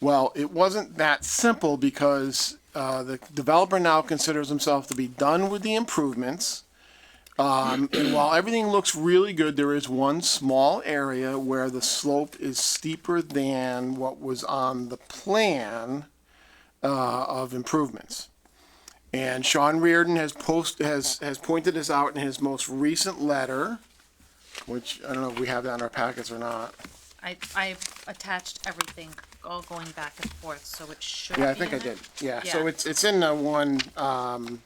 Well, it wasn't that simple because uh, the developer now considers himself to be done with the improvements. Um, and while everything looks really good, there is one small area where the slope is steeper than what was on the plan uh, of improvements. And Sean Reardon has post has has pointed this out in his most recent letter, which I don't know if we have that in our packets or not. I, I attached everything, all going back and forth, so it should be. Yeah, I think I in there. did. Yeah, so Yeah. it's it's in the one. Um,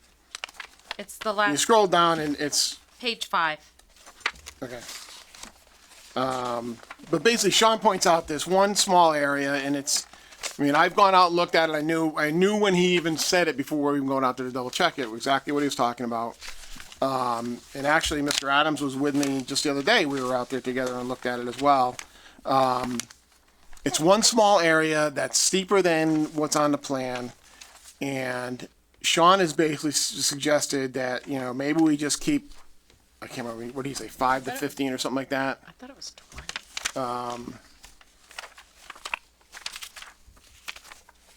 It's the Uh, you last, scroll down and it's page five. okay. Um, but basically, Sean points out this one small area, and it's. I mean, I've gone out and looked at it. I knew I knew when he even said it before we were even going out there to double check it exactly what he was talking about. Um, and actually, Mr. Adams was with me just the other day. We were out there together and looked at it as well. Um, It's one small area that's steeper than what's on the plan. And Sean has basically s- suggested that, you know, maybe we just keep, I can't remember, what did he say, five to fifteen or something like that? I thought it was twenty. Um.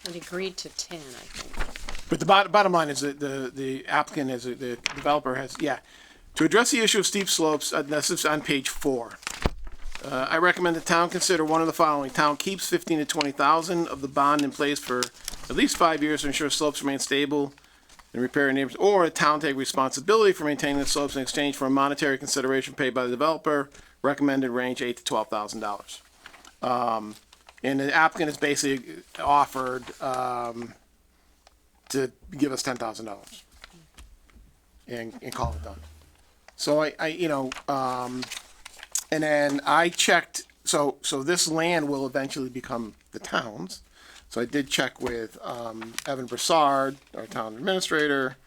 It agreed to ten, I think. But the bottom, bottom line is that the, the applicant is, the developer has, yeah. To address the issue of steep slopes, uh, this is on page four. Uh, I recommend the town consider one of the following. Town keeps fifteen to twenty thousand of the bond in place for at least five years to ensure slopes remain stable and repair neighbors, or the town take responsibility for maintaining the slopes in exchange for a monetary consideration paid by the developer. Recommended range eight to twelve thousand dollars. Um, and the applicant is basically offered, to give us ten thousand dollars and, and call it done. So I, I, you know, um, and then I checked, so, so this land will eventually become the town's. So I did check with, um, Evan Broussard, our town administrator,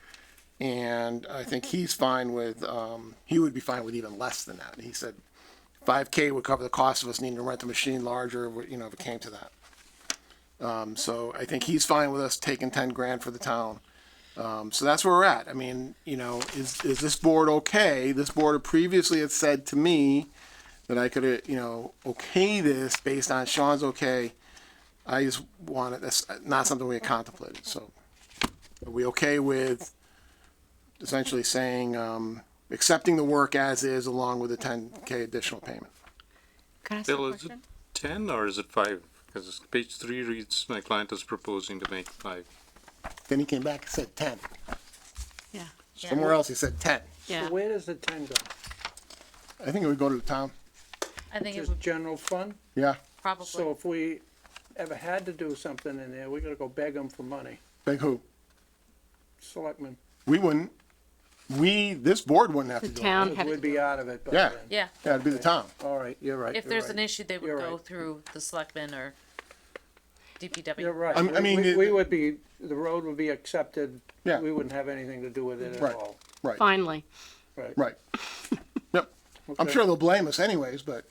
and I think he's fine with, um, he would be fine with even less than that. He said five K would cover the cost of us needing to rent the machine larger, you know, if it came to that. Um, so I think he's fine with us taking ten grand for the town. Um, so that's where we're at. I mean, you know, is, is this board okay? This board previously had said to me that I could, uh, you know, okay this based on Sean's okay. I just wanted, that's not something we had contemplated, so. Are we okay with essentially saying, um, accepting the work as is along with a ten K additional payment? Can I ask a Bill, is it question? ten or is it five? Because page three reads, my client is proposing to make five. Then he came back and said ten. Yeah, Somewhere else he said ten. yeah. Where does the ten go? I think it would go to the town. I think it Just would general fund? Yeah, So probably, if we ever had to do something in there, we gotta go beg them for money. big who? Selectmen, We wouldn't. We, this board wouldn't have to The do it. town had, we'd be out of it by Yeah. then. yeah. Yeah, it'd be the town. All right, you're right. If you're there's right. an issue, they would You're go right. through the selectmen or You're DPW. right. I'm- I We- mean, we- it- We would be, the road would be accepted. Yeah. We wouldn't have anything to do with it Right. at all. Right. finally, Right. Right. Yep. I'm Okay. sure they'll blame us anyways, but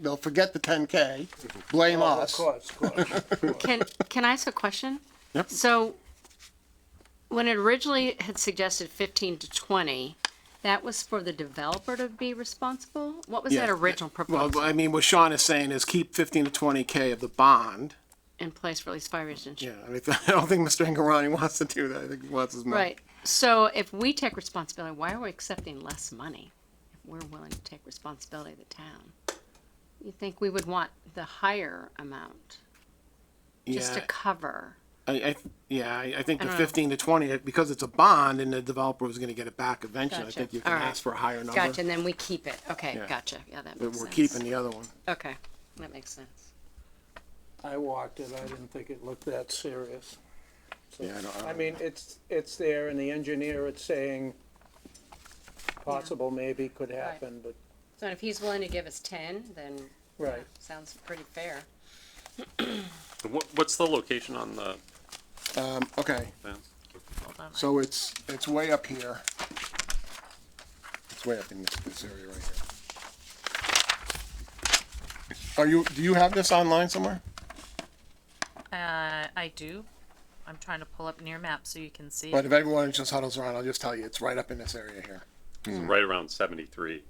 they'll forget the 10K, blame Oh, Of us. course, of course. of course. can, can I ask a question? Yep. So, when it originally had suggested fifteen to twenty, that was for the developer to be responsible? What was that Yeah. original Well, proposal I mean, what Sean is saying is keep 15 to 20K of the bond. in place for at least five years? and- Yeah, I mean, I don't think Mr. Angarani wants to do that. I think he wants his money. Right, so if we take responsibility, why are we accepting less money? If we're willing to take responsibility of the town? you think we would want the higher amount, just to Yeah, cover? I, I, yeah, I I think the don't know. 15 to 20, because it's a bond and the developer was going to get it back eventually, I Gotcha. think you can All right. ask for a higher number. Gotcha, and then we keep it. Okay, Yeah. gotcha. Yeah, that But makes sense. we're keeping the other one. Okay, that makes sense. I walked it, I didn't think it looked that serious. Yeah, I don't- I I don't- mean, it's, it's there and the engineer, it's saying possible maybe could happen, but, So if he's willing to give us ten, then right. sounds pretty fair. What, what's the location on the Um, okay. plan? So it's, it's way up here. It's way up in this, this area right here. Are you, do you have this online somewhere? Uh, I do. I'm trying to pull up near map so you can see. But if everyone just huddles around, I'll just tell you, it's right up in this area here. It's Right around seventy-three,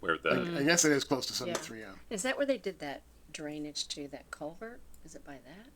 where the, I guess it is close to seventy-three oh. M. Is that where they did that drainage to that culvert? Is it by that?